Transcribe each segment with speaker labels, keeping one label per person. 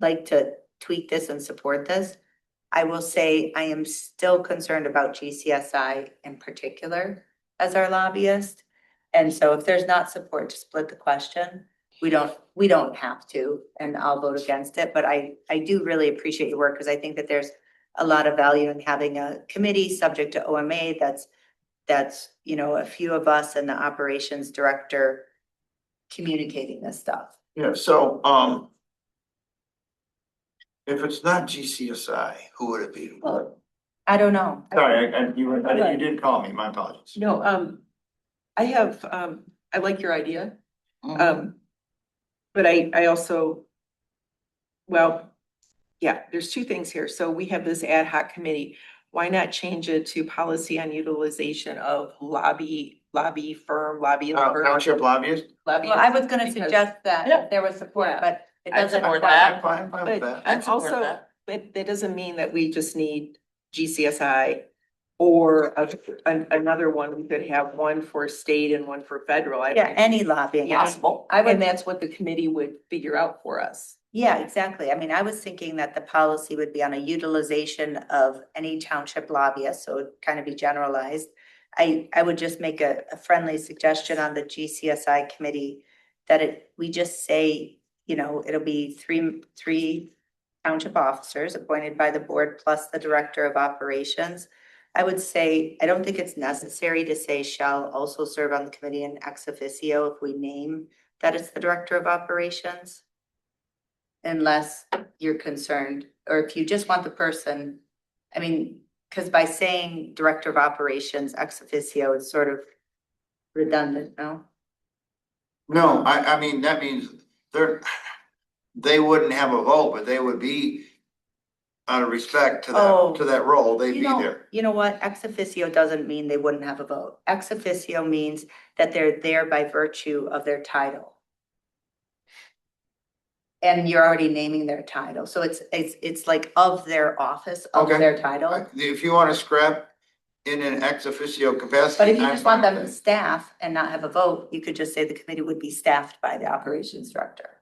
Speaker 1: like to tweak this and support this. I will say I am still concerned about GCSI in particular as our lobbyist. And so if there's not support to split the question, we don't, we don't have to, and I'll vote against it. But I, I do really appreciate your work because I think that there's a lot of value in having a committee subject to OMA that's, that's, you know, a few of us and the operations director communicating this stuff.
Speaker 2: Yeah, so, um. If it's not GCSI, who would it be?
Speaker 1: Well- I don't know.
Speaker 2: Sorry, I, I, you, were- I- you did call me, my apologies.
Speaker 3: No, um, I have, um, I like your idea, um, but I, I also, well, yeah, there's two things here. So we have this ad hoc committee. Why not change it to policy on utilization of lobby, lobby firm, lobby?
Speaker 2: Uh, Township lobbyist?
Speaker 3: lobby-
Speaker 1: Well, I was gonna
Speaker 3: because-
Speaker 1: suggest that
Speaker 3: Yeah.
Speaker 1: if there was support,
Speaker 3: Yeah.
Speaker 1: but it
Speaker 4: I
Speaker 1: doesn't.
Speaker 4: support
Speaker 1: require-
Speaker 4: that.
Speaker 2: I'm fine, I'm fine with
Speaker 3: But
Speaker 2: that.
Speaker 3: and
Speaker 4: support
Speaker 3: also,
Speaker 4: that.
Speaker 3: but that doesn't mean that we just need GCSI or a- an- another one. We could have one for state and one for federal. I don't
Speaker 1: Yeah, any lobbying.
Speaker 3: Yeah.
Speaker 4: Possible.
Speaker 1: I
Speaker 3: And
Speaker 1: would,
Speaker 3: that's what the committee would figure out for us.
Speaker 1: yeah, exactly. I mean, I was thinking that the policy would be on a utilization of any township lobbyist, so it'd kind of be generalized. I, I would just make a, a friendly suggestion on the GCSI committee that it, we just say, you know, it'll be three, three township officers appointed by the board plus the director of operations. I would say, I don't think it's necessary to say shall also serve on the committee in ex officio if we name that it's the director of operations. Unless you're concerned, or if you just want the person, I mean, because by saying director of operations ex officio, it's sort of redundant, no?
Speaker 2: No, I, I mean, that means they're, they wouldn't have a vote, but they would be. Out of respect to
Speaker 1: Oh.
Speaker 2: that, to that role, they'd
Speaker 1: You
Speaker 2: be
Speaker 1: know-
Speaker 2: there.
Speaker 1: You know what, ex officio doesn't mean they wouldn't have a vote. Ex officio means that they're there by virtue of their title. And you're already naming their title, so it's, it's, it's like of their office, of
Speaker 2: Okay.
Speaker 1: their title.
Speaker 2: If you wanna scrap in an ex officio capacity.
Speaker 1: But if you
Speaker 2: I'm
Speaker 1: just want
Speaker 2: fine
Speaker 1: them to
Speaker 2: with
Speaker 1: staff and not have a vote, you could just say the committee would be staffed by the operations director.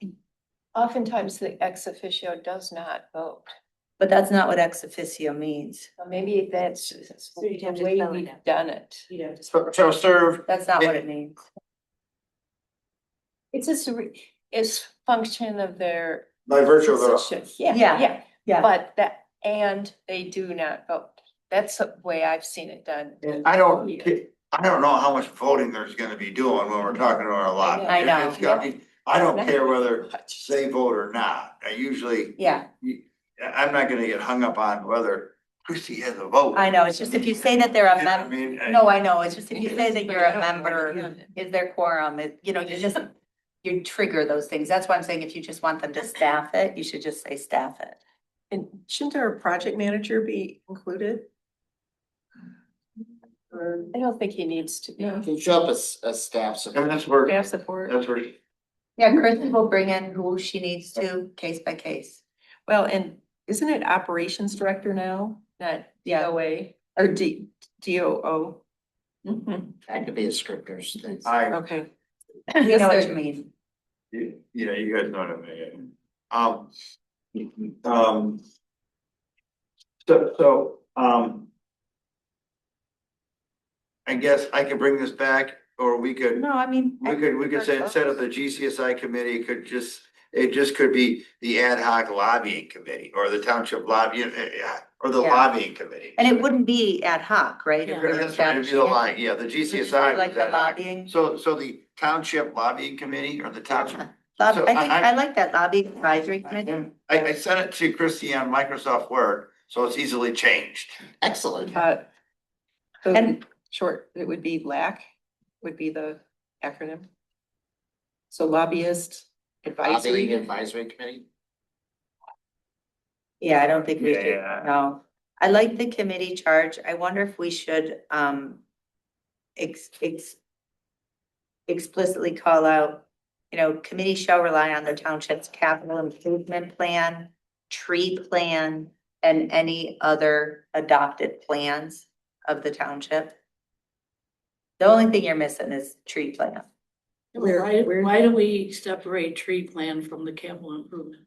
Speaker 5: Oftentimes, the ex officio does not vote,
Speaker 1: But that's not what ex officio means.
Speaker 5: So maybe that's the
Speaker 4: you'd have to
Speaker 5: way
Speaker 4: spell it
Speaker 5: we've
Speaker 4: out.
Speaker 5: done it.
Speaker 2: that. So- So serve
Speaker 1: That's not what it means.
Speaker 5: It's just, a re- it's function of their
Speaker 2: by virtue of their.
Speaker 5: position, yeah,
Speaker 1: Yeah,
Speaker 5: yeah,
Speaker 1: yeah.
Speaker 5: but that, and they do not vote. That's the way I've seen it done.
Speaker 2: And I
Speaker 1: Oh,
Speaker 2: don't, ki- I don't know how much voting there's gonna be doing when we're talking to our lobby.
Speaker 1: I know.
Speaker 2: It's gotta be- I don't care whether they vote or not. I usually,
Speaker 1: Yeah.
Speaker 2: I- I'm not gonna get hung up on whether Christie has a vote.
Speaker 1: I know, it's just if you say that they're a
Speaker 2: You know what I
Speaker 1: member,
Speaker 2: mean, I-
Speaker 1: no, I know, it's just if you say that you're a member, is there quorum, it, you know, you just, you trigger those things, that's why I'm saying if you just want them to staff it, you should just say staff it.
Speaker 3: And shouldn't our project manager be included? Or-
Speaker 5: I don't think he needs to be.
Speaker 4: You can show up as, as staff
Speaker 2: I mean,
Speaker 4: support.
Speaker 2: that's where,
Speaker 5: Staff support.
Speaker 2: that's where,
Speaker 1: Yeah, Kristen will bring in who she needs to, case by case.
Speaker 3: Well, and isn't it operations director now, not
Speaker 1: Yeah.
Speaker 3: DOA or D, DOO?
Speaker 4: Had to be a scripters thing.
Speaker 2: I,
Speaker 3: Okay.
Speaker 1: You know
Speaker 3: Yes,
Speaker 1: what
Speaker 3: sir.
Speaker 1: you mean,
Speaker 2: you you know, you guys know what I mean. Um, um. So, so, um. I guess I could bring this back, or we could.
Speaker 1: no, I mean.
Speaker 2: We could, we could say, instead of the GCSI committee, it could just, it just could be the ad hoc lobbying committee or the township lobby, eh, eh, eh, or the
Speaker 1: Yeah.
Speaker 2: lobbying committee.
Speaker 1: And it wouldn't be ad hoc, right?
Speaker 2: You're gonna- That's right, it'd be the line, yeah, the GCSI.
Speaker 1: Like
Speaker 2: was
Speaker 1: the
Speaker 2: ad hoc.
Speaker 1: lobbying,
Speaker 2: So, so the township lobbying committee or the township,
Speaker 1: Lob- I
Speaker 2: so
Speaker 1: think,
Speaker 2: I- I-
Speaker 1: I like that lobbying advisory committee.
Speaker 2: I, I sent it to Christie on Microsoft Word, so it's easily changed.
Speaker 4: Excellent.
Speaker 3: Uh,
Speaker 1: And-
Speaker 3: And short, it would be LAC would be the acronym. So lobbyist
Speaker 4: Lobbying
Speaker 3: advisory.
Speaker 4: advisory committee.
Speaker 1: Yeah, I don't think we should,
Speaker 2: Yeah.
Speaker 1: no. I like the committee charge. I wonder if we should, um, ex- ex- explicitly call out, you know, committee shall rely on the township's capital improvement plan, tree plan, and any other adopted plans of the township. The only thing you're missing is tree plan.
Speaker 6: Why, why do we separate tree plan from the capital improvement?